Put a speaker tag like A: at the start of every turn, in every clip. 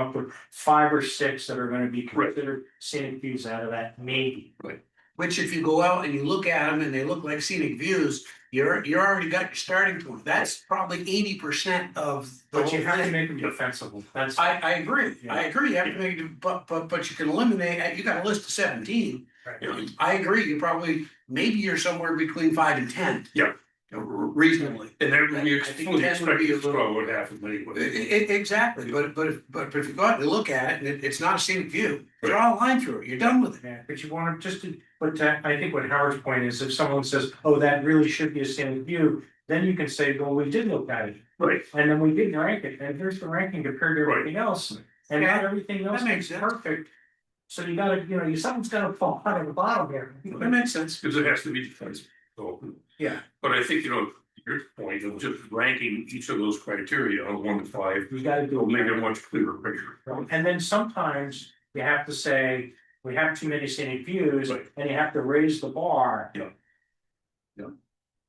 A: up with five or six that are gonna be
B: Right.
A: considered scenic views out of that, maybe.
B: Which if you go out and you look at them and they look like scenic views, you're, you're already got your starting point. That's probably eighty percent of. the
A: But you
B: whole
A: have to
B: thing.
A: make them defensible, that's.
B: I, I agree, I agree, you have to make, it- but, but, but you can eliminate, you got a list of seventeen.
A: Right.
B: I agree, you probably, maybe you're somewhere between five and ten.
C: Yeah.
B: You know, Reasonably.
C: And then when you
B: I think
C: fully
B: that would
C: expect
B: be a
C: to
B: little-
C: throw what happened anyway.
B: E- e- exactly, but, but, if- but if you go out and look at it, and it, it's not a scenic view, draw a line through it, you're done with it.
A: Yeah, but you wanna just, to- but that- I think what Howard's point is, if someone says, oh, that really should be a scenic view, then you can say, well, we did look at it.
C: Right.
A: And then we did rank it, and here's the ranking compared to
C: Right.
A: everything else, and not everything else
B: makes
A: is
B: sense.
A: perfect. So you gotta, you know, you something's gonna fall out of the bottom here.
B: That makes sense.
C: Because it has to be defensive. So,
A: Yeah.
C: but I think, you know, your point of just ranking each of those criteria on one to five
A: You gotta do.
C: will
A: it.
C: make a much clearer picture.
A: Right, And then sometimes you have to say, we have too many scenic views,
C: Right.
A: and you have to raise the bar.
C: Yeah. Yeah.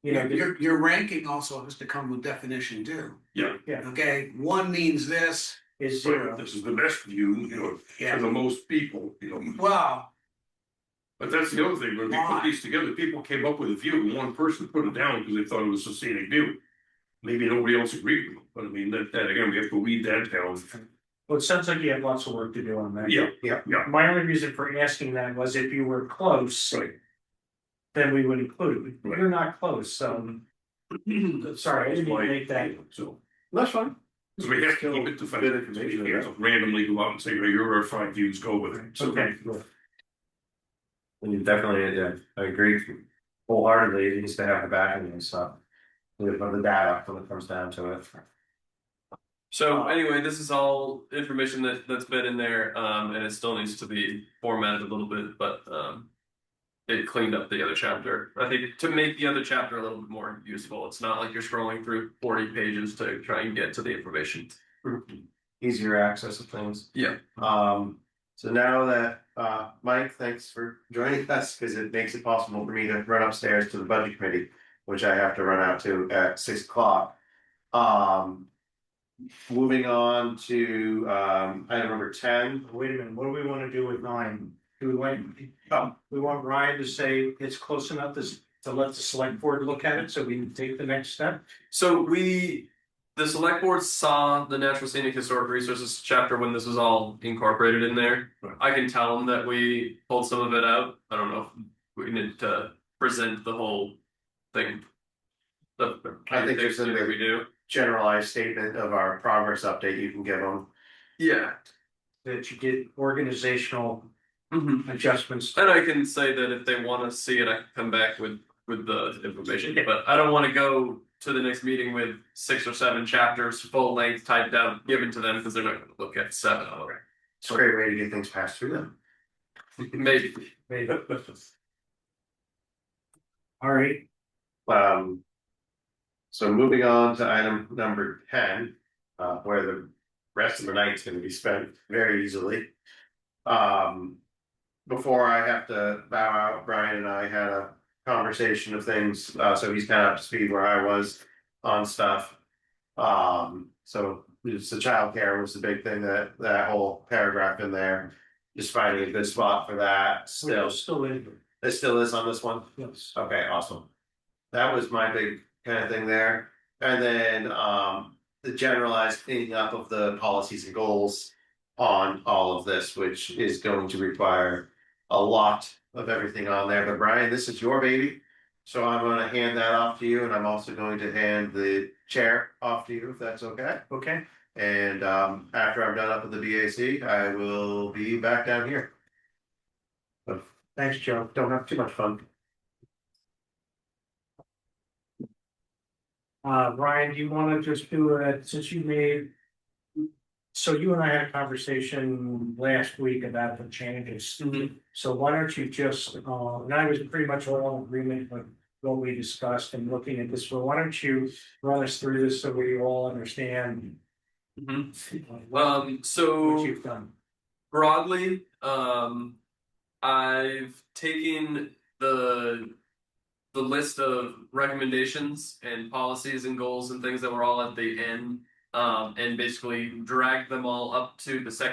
A: You know, the-
B: Your, your ranking also has to come with definition too.
C: Yeah.
A: Yeah.
B: Okay, one means this,
A: is
C: But
A: zero,
C: this is the best view, you know, for
B: yeah,
C: the most people, you know.
B: well,
C: But that's the other thing, when we put these together, people came up with a view and one person put it down because they thought it was a scenic view. Maybe nobody else agreed with them, but I mean, that, that again, we have to weed that down.
A: well, it sounds like you have lots of work to do on that.
C: Yeah,
A: My only reason for asking that was if you were close,
C: right.
A: then we would include it,
C: Right.
A: you're not close, so. um, Sorry, I didn't mean to make that.
C: So.
D: That's fine.
C: So we have to keep it
D: Bit of
C: defensive, so
D: conviction
C: we
D: in
C: can't
D: that.
C: just randomly go out and say, "Hey, here are five views, go with it. So-
A: Okay.
D: And you definitely, yeah, I agree wholeheartedly, it needs to have the backing and stuff. We have the data when it comes down to it.
E: So anyway, this is all information that that's been in there, um, and it still needs to be formatted a little bit, but um. It cleaned up the other chapter. I think to make the other chapter a little bit more useful. It's not like you're scrolling through forty pages to try and get to the information.
D: Easier access to things.
E: Yeah.
D: Um, so now that, uh, Mike, thanks for joining us, cause it makes it possible for me to run upstairs to the budget committee, which I have to run out to at six o'clock. Um. Moving on to, um, item number ten,
A: Wait a minute, what do we wanna do with nine? Do we want, um,
D: Oh.
A: we want Ryan to say it's close enough to, to let the select board look at it, so we can take the next step?
E: So we, the select board saw the natural scenic historic resources chapter when this was all incorporated in there.
C: Right.
E: I can tell them that we pulled some of it out. I don't know if we need to present the whole thing. The,
D: I think there's
E: something
D: something-
E: we do.
D: generalized statement of our progress update you can give them.
E: Yeah.
A: That you did organizational adjustments.
E: Mm-hmm. And I can say that if they want to see it, I can come back with with the information. But I don't want to go to the next meeting with six or seven chapters full length typed out given to them because they're not going to look at seven of them.
D: It's a great way to get things passed through them.
E: Maybe.
A: maybe. All right,
D: Um. So moving on to item number ten, uh, where the rest of the night's gonna be spent very easily. Um. Before I have to bow out, Brian and I had a conversation of things, uh, so he's kind of up to speed where I was on stuff. Um, so it's the childcare was the big thing that, that whole paragraph in there. Just finding a good spot for that
A: still,
D: still,
A: still in,
D: it still is on this one.
A: yes.
D: Okay, awesome. That was my big kind of thing there. And then um the generalized cleaning up of the policies and goals on all of this, which is going to require a lot of everything on there. But Brian, this is your baby. So I'm gonna hand that off to you and I'm also going to hand the chair off to you if that's okay.
A: Okay,
D: And um after I'm done up with the BAC, I will be back down here.
A: thanks, Joe.
D: Don't have too much fun.
A: Uh, Ryan, do you wanna just do it, since you made. So you and I had a conversation last week about the changes. So why don't you just, uh, and I was pretty much all in agreement with what we discussed and looking at this, well, why don't you run us through this so we all understand
E: Mhm.
A: what
E: Um, so
A: you've done?
E: broadly, um, I've taken the the list of recommendations and policies and goals and things that were all at the end Um, and basically dragged them all up to the section